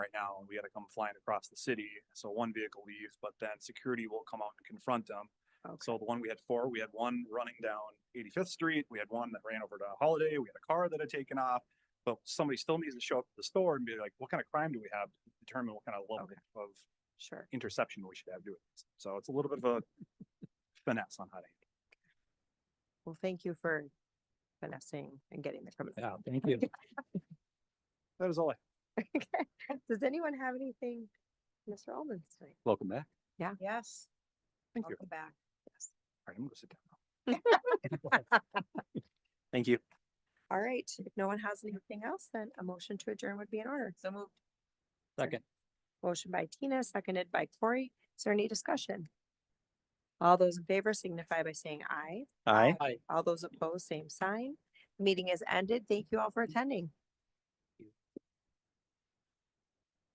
right now, and we gotta come flying across the city. So one vehicle leaves, but then security will come out and confront them. So the one we had four, we had one running down eighty-fifth street, we had one that ran over to Holiday, we had a car that had taken off. But somebody still needs to show up at the store and be like, what kind of crime do we have? to Determine what kind of level Okay. of Sure. interception we should have doing this. So it's a little bit of a finesse on how to. Well, thank you for finessing and getting the criminal. Yeah, thank you. That is all I. Does anyone have anything, Mr. Alden's tonight? Welcome back. Yes. Thank you. Welcome back. All right, I'm gonna sit down. Thank you. All right, if no one has anything else, then a motion to adjourn would be in order. So moved. Second. Motion by Tina, seconded by Corey. Is there any discussion? All those in favor signify by saying aye. Aye. All those opposed, same sign. Meeting is ended. Thank you all for attending.